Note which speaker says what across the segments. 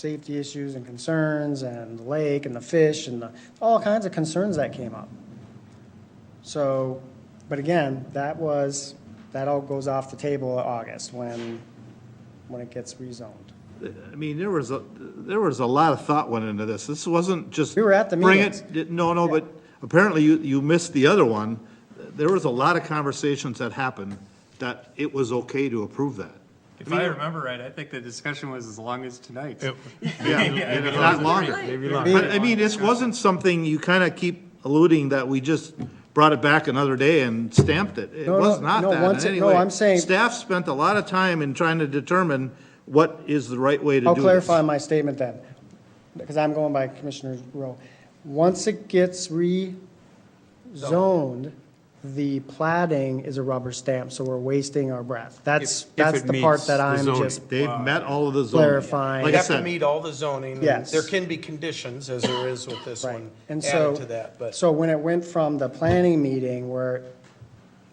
Speaker 1: safety issues and concerns and the lake and the fish and the, all kinds of concerns that came up. So, but again, that was, that all goes off the table in August when, when it gets rezoned.
Speaker 2: I mean, there was, a there was a lot of thought went into this. This wasn't just.
Speaker 1: We were at the
Speaker 2: bring it- No, no, but apparently you, you missed the other one. There was a lot of conversations that happened that it was okay to approve that.
Speaker 3: If I remember right, I think the discussion was as long as tonight.
Speaker 2: Yeah, and if not longer.
Speaker 4: Maybe not.
Speaker 2: But I mean, this wasn't something you kind of keep alluding that we just brought it back another day and stamped it. It
Speaker 1: No, no,
Speaker 2: was not
Speaker 1: no,
Speaker 2: that
Speaker 1: once
Speaker 2: in
Speaker 1: it-
Speaker 2: any
Speaker 1: no,
Speaker 2: way.
Speaker 1: I'm saying-
Speaker 2: Staff spent a lot of time in trying to determine what is the right way to do
Speaker 1: I'll
Speaker 2: this.
Speaker 1: clarify my statement then, because I'm going by Commissioner Rowe. Once it gets rezoned, the plating is a rubber stamp, so we're wasting our breath. That's,
Speaker 4: If- if
Speaker 1: that's
Speaker 4: it
Speaker 1: the part
Speaker 4: meets
Speaker 1: that
Speaker 4: the
Speaker 1: I'm
Speaker 4: zoning.
Speaker 1: just,
Speaker 2: They've met all of the zoning.
Speaker 1: Clarifying.
Speaker 2: Like
Speaker 5: You
Speaker 2: I
Speaker 5: have to
Speaker 2: said,
Speaker 5: meet all the zoning. and
Speaker 1: Yes.
Speaker 5: There can be conditions, as there is with this
Speaker 1: right.
Speaker 5: one,
Speaker 1: And so,
Speaker 5: added to that, but
Speaker 1: so when it went from the planning meeting where,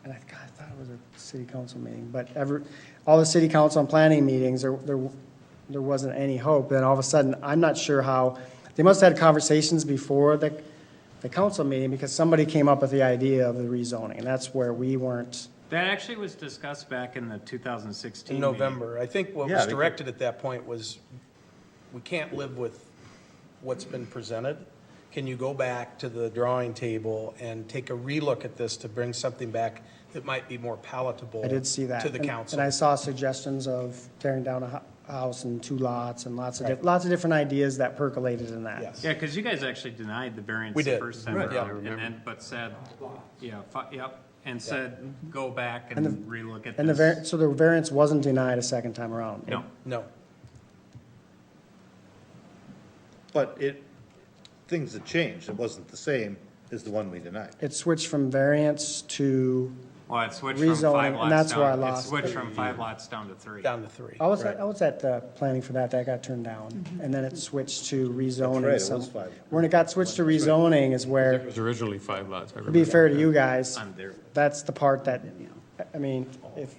Speaker 1: and I, God, I thought it was a city council meeting, but ever, all the city council and planning meetings, there, there, there wasn't any hope. Then all of a sudden, I'm not sure how, they must have had conversations before the, the council meeting because somebody came up with the idea of the rezoning, and that's where we weren't.
Speaker 3: That actually was discussed back in the 2016
Speaker 5: in
Speaker 3: meeting.
Speaker 5: November. I think what was directed at that point was, we can't live with what's been presented. Can you go back to the drawing table and take a relook at this to bring something back that might be more palatable?
Speaker 1: I did see that.
Speaker 5: To the
Speaker 1: And-
Speaker 5: council.
Speaker 1: And I saw suggestions of tearing down a hu- house and two lots and lots of, diff- lots of different ideas that percolated in that.
Speaker 5: Yes.
Speaker 3: Yeah, because you guys actually denied the variance
Speaker 5: We
Speaker 3: the
Speaker 5: did.
Speaker 3: first time
Speaker 5: Right. Yeah, I
Speaker 3: around, and then, but said, yeah, fi- yep, and said, go back and relook at
Speaker 1: And the
Speaker 3: this.
Speaker 1: var, so the variance wasn't denied a second time around?
Speaker 3: No,
Speaker 5: No.
Speaker 2: but it, things had changed. It wasn't the same as the one we denied.
Speaker 1: It switched from variance to,
Speaker 3: well, it switched from
Speaker 1: Rezoning,
Speaker 3: five
Speaker 1: and
Speaker 3: lots down.
Speaker 1: that's where I
Speaker 3: it
Speaker 1: lost.
Speaker 3: switched from five lots down to three.
Speaker 5: Down to three.
Speaker 1: I was, I was at the planning for that, that got turned down. And then it switched to rezoning.
Speaker 2: Mm-hmm. right, it
Speaker 1: some-
Speaker 2: was five.
Speaker 1: When it got switched to rezoning is where,
Speaker 4: It was originally five lots, I
Speaker 1: to
Speaker 4: remember.
Speaker 1: be fair to you guys,
Speaker 3: I'm there.
Speaker 1: that's the part that, I mean, if,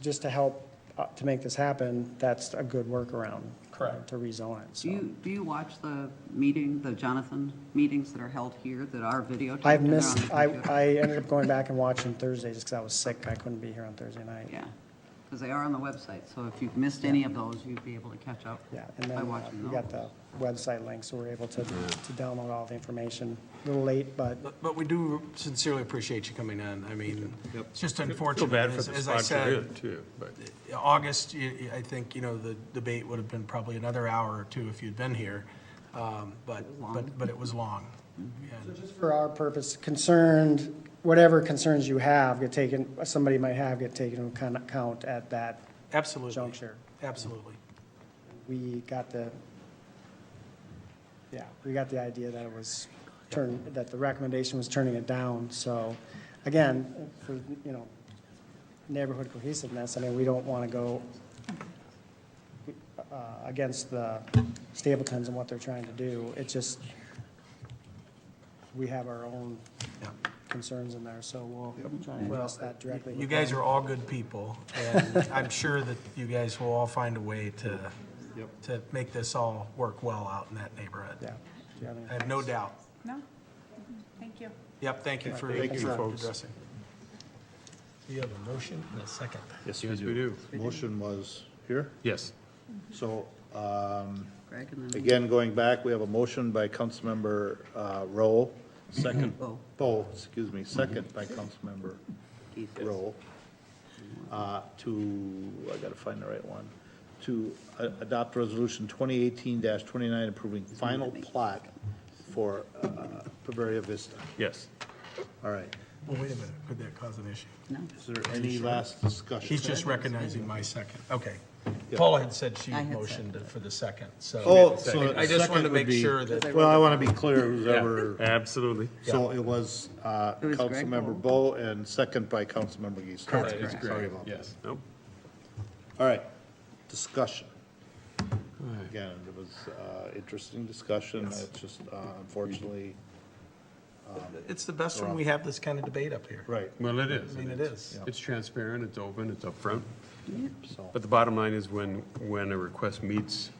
Speaker 1: just to help, uh, to make this happen, that's a good workaround. Correct. To rezone it, so.
Speaker 6: Do you, do you watch the meeting, the Jonathan meetings that are held here that are videotaped?
Speaker 1: I've
Speaker 6: and they're on
Speaker 1: missed,
Speaker 2: uh,
Speaker 6: the
Speaker 1: I,
Speaker 6: computer?
Speaker 1: I ended up going back and watching Thursday just because I was sick. I couldn't be here on Thursday night.
Speaker 6: Yeah, because they are on the website, so if you've missed any of those, you'd be able to catch up
Speaker 1: Yeah, and
Speaker 6: by
Speaker 1: then uh,
Speaker 6: watching
Speaker 1: we
Speaker 6: those.
Speaker 1: got the website link, so we're able to, to download all the information. A little late, but
Speaker 7: But- But we do sincerely appreciate you coming in. I mean, it's just
Speaker 4: Feel
Speaker 7: unfortunate.
Speaker 4: bad for
Speaker 7: As-
Speaker 4: the
Speaker 7: As I
Speaker 4: sponsor
Speaker 7: said,
Speaker 4: too, but
Speaker 7: August, y- y- I think, you know, the debate would have been probably another hour or two if you'd been here. Um, But, but, but it was long. And-
Speaker 1: just for our purpose, concerned, whatever concerns you have get taken, somebody might have get taken into account- account at that
Speaker 7: Absolutely,
Speaker 1: juncture.
Speaker 7: absolutely.
Speaker 1: We got the, yeah, we got the idea that it was turn, that the recommendation was turning it down. So again, for, you know, neighborhood cohesiveness, I mean, we don't want to go uh, against the Stapletons and what they're trying to do. It just, we have our own
Speaker 7: Yeah.
Speaker 1: concerns in there, so we'll try and address that directly.
Speaker 7: You guys are all good people, and I'm sure that you guys will all find a way to, to make this all work well out in that neighborhood.
Speaker 1: Yeah. Do you have any-
Speaker 7: I have no doubt.
Speaker 8: No? Thank you.
Speaker 7: Yep, thank you for
Speaker 4: Thank you,
Speaker 7: for
Speaker 4: folks.
Speaker 7: addressing.
Speaker 4: You have a motion and a second.
Speaker 2: Yes,
Speaker 4: Yes, we do.
Speaker 2: Motion was here.
Speaker 4: Yes.
Speaker 2: So, um,
Speaker 6: Greg and then,
Speaker 2: again, going back, we have a motion by Councilmember, uh, Rowe, second,
Speaker 6: Bo.
Speaker 2: Bo, excuse me, second by Councilmember
Speaker 6: Keith.
Speaker 2: Rowe, uh, to, I gotta find the right one, to uh, adopt resolution twenty eighteen twenty-nine approving final plot for, uh, Bavaria Vista.
Speaker 4: Yes.
Speaker 2: All right.
Speaker 7: Well, wait a minute, could that cause an issue?
Speaker 6: no,
Speaker 2: Is there any last discussion?
Speaker 7: He's just recognizing my second, okay.
Speaker 2: Yeah.
Speaker 7: Paula had said she
Speaker 6: I had
Speaker 7: motioned for the second, so.
Speaker 2: Oh, so
Speaker 7: I just
Speaker 2: second
Speaker 7: wanted to
Speaker 2: would
Speaker 7: make
Speaker 2: be-
Speaker 7: sure that,
Speaker 2: Well, I want to be clear who's ever,
Speaker 4: Absolutely.
Speaker 2: so it was uh,
Speaker 6: It was Greg
Speaker 2: Councilmember Bo and second by Councilmember Geisler.
Speaker 6: correct.
Speaker 2: Sorry about that.
Speaker 4: Nope.
Speaker 2: All right, discussion. Again, it was uh, interesting discussion, it's just uh, unfortunately,
Speaker 7: it's the best when we have this kind of debate up here.
Speaker 2: right,
Speaker 4: Well, it is.
Speaker 7: I mean, it is.
Speaker 4: It's transparent, it's open, it's upfront.
Speaker 2: so,
Speaker 4: But the bottom line is when, when a request meets